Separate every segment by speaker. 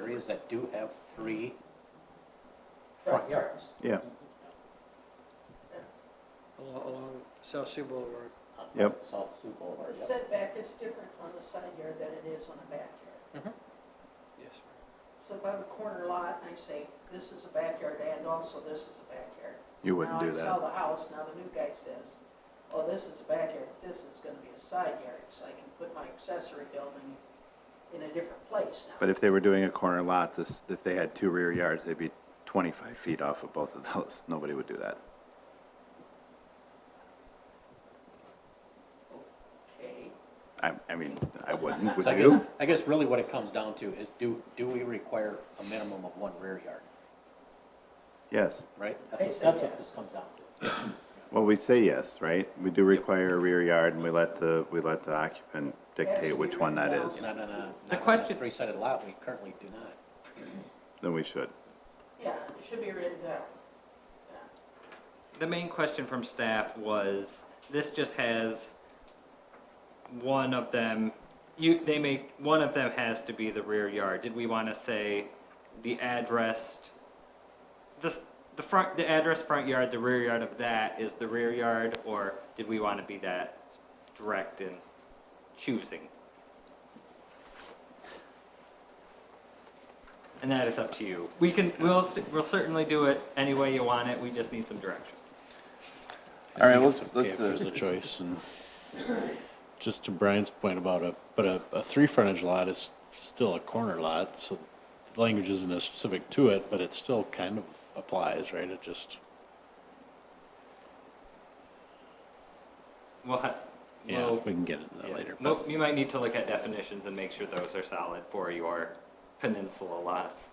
Speaker 1: properties that do have three front yards.
Speaker 2: yeah,
Speaker 3: along, along South Sioux Boulevard.
Speaker 2: Yep.
Speaker 1: South Sioux Boulevard,
Speaker 4: The
Speaker 1: yep.
Speaker 4: setback is different on the side yard than it is on a backyard.
Speaker 3: Yes.
Speaker 4: So if I have a corner lot and I say, this is a backyard and also this is a backyard.
Speaker 2: you wouldn't do
Speaker 4: Now I sell
Speaker 2: that.
Speaker 4: the house, now the new guy says, oh, this is a backyard, this is gonna be a side yard, so I can put my accessory building in a different place now.
Speaker 2: But if they were doing a corner lot, this, if they had two rear yards, they'd be twenty-five feet off of both of those. Nobody would do that.
Speaker 4: Okay,
Speaker 2: I, I mean, I wouldn't, would
Speaker 1: So I guess,
Speaker 2: you?
Speaker 1: I guess really what it comes down to is do, do we require a minimum of one rear yard,
Speaker 2: Yes.
Speaker 1: right?
Speaker 4: I'd
Speaker 1: That's what,
Speaker 4: say
Speaker 1: that's what
Speaker 4: yes.
Speaker 1: this comes down to.
Speaker 2: Well, we say yes, right? We do require a rear yard and we let the, we let the occupant dictate which one that is.
Speaker 1: Not on a,
Speaker 5: The
Speaker 1: not on a
Speaker 5: question-
Speaker 1: three-sided lot, we currently do not.
Speaker 2: Then we should.
Speaker 4: yeah, it should be written down. Yeah.
Speaker 5: The main question from staff was, this just has one of them, you, they make, one of them has to be the rear yard. Did we want to say the address, the, s- the front, the address, front yard, the rear yard of that is the rear yard? Or did we want to be that direct in choosing? And that is up to you. We can, we'll, s- we'll certainly do it any way you want it, we just need some direction.
Speaker 6: I
Speaker 2: All right,
Speaker 6: think
Speaker 2: let's-
Speaker 6: it's
Speaker 2: let's,
Speaker 6: Okay, if there's
Speaker 5: uh,
Speaker 6: a choice, and just to Brian's point about a, but a, a three frontage lot is still a corner lot, so the language isn't as specific to it, but it still kind of applies, right? It just,
Speaker 5: We'll ha-
Speaker 6: yeah,
Speaker 5: we'll-
Speaker 6: we can get into that
Speaker 5: yeah.
Speaker 6: later. but-
Speaker 5: Well, you might need to look at definitions and make sure those are solid for your peninsula lots.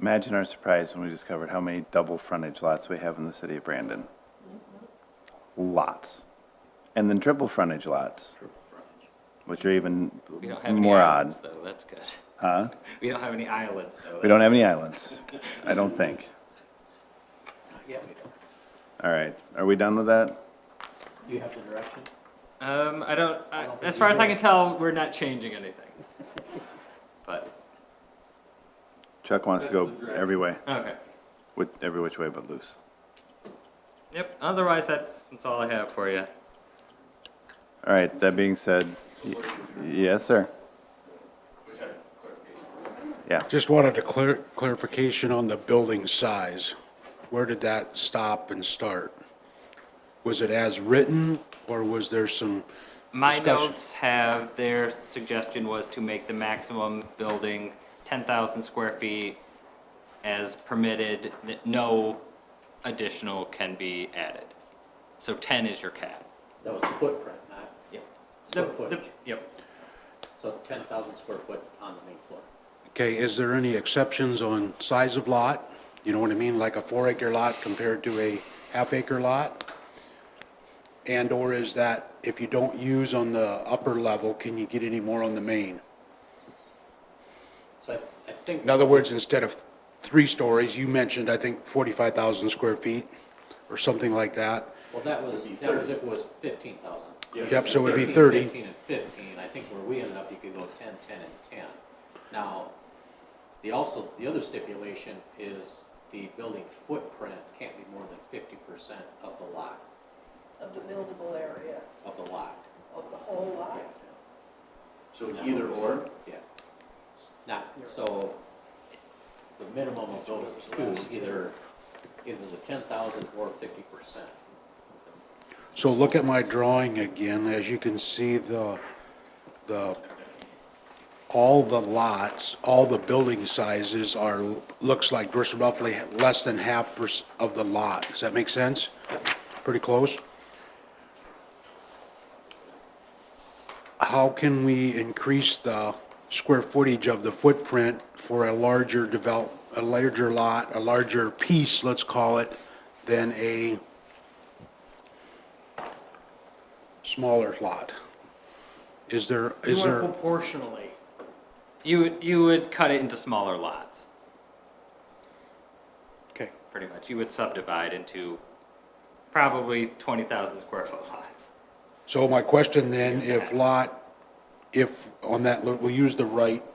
Speaker 2: Imagine our surprise when we discovered how many double frontage lots we have in the city of Brandon.
Speaker 1: Mm-hmm.
Speaker 2: Lots. And then triple frontage lots, which are even
Speaker 5: We don't have any
Speaker 2: more
Speaker 5: islands,
Speaker 2: odd.
Speaker 5: though. That's good.
Speaker 2: Huh?
Speaker 5: We don't have any islands, though.
Speaker 2: We don't have any islands, I don't think.
Speaker 1: Yeah, we do.
Speaker 2: All right, are we done with that?
Speaker 1: Do you have the direction?
Speaker 5: Um, I don't. I,
Speaker 1: don't think
Speaker 5: as
Speaker 1: we
Speaker 5: far as
Speaker 1: do.
Speaker 5: I can tell, we're not changing anything. but
Speaker 2: Chuck wants to go every way,
Speaker 5: okay.
Speaker 2: with, every which way but loose.
Speaker 5: Yep. Otherwise, that's that's all I have for you.
Speaker 2: All right, that being said, y- yes, sir? Yeah,
Speaker 7: Just wanted a clar- clarification on the building size. Where did that stop and start? Was it as written, or was there some
Speaker 5: My
Speaker 7: discussion?
Speaker 5: notes have their suggestion was to make the maximum building 10,000 square feet as permitted, that no additional can be added. So 10 is your cap.
Speaker 1: That was footprint, not
Speaker 5: Yep.
Speaker 1: square
Speaker 5: The- the-
Speaker 1: footage.
Speaker 5: Yep.
Speaker 1: So ten thousand square foot on the main floor.
Speaker 7: Okay, is there any exceptions on size of lot? You know what I mean, like a four acre lot compared to a half acre lot? And/or is that, if you don't use on the upper level, can you get any more on the main?
Speaker 1: So I, I think.
Speaker 7: In other words, instead of three stories, you mentioned, I think, 45,000 square feet or something like that.
Speaker 1: Well, that was, that was, it was fifteen thousand.
Speaker 7: Yep, so it would be 30.
Speaker 1: Fifteen and fifteen, I think where we ended up, you could go ten, ten, and ten. Now, the also, the other stipulation is the building footprint can't be more than fifty percent of the lot,
Speaker 4: Of the buildable area,
Speaker 1: of the lot.
Speaker 4: of the whole
Speaker 1: Yeah.
Speaker 4: lot.
Speaker 8: So it's either or?
Speaker 1: Yeah. Not, so the minimum of those two, either, either the ten thousand or fifty percent.
Speaker 7: So look at my drawing again. As you can see, the, the, all the lots, all the building sizes are, looks like just roughly less than half pers- of the lot. Does that make sense? Pretty close? How can we increase the square footage of the footprint for a larger develop, a larger lot, a larger piece, let's call it, than a smaller lot? Is there, is there?
Speaker 9: Proportionally,
Speaker 5: You, would- you would cut it into smaller lots,
Speaker 7: Okay.
Speaker 5: pretty much. You would subdivide into probably 20,000 square foot lots.
Speaker 7: So my question then, if lot, if on that, we'll use the right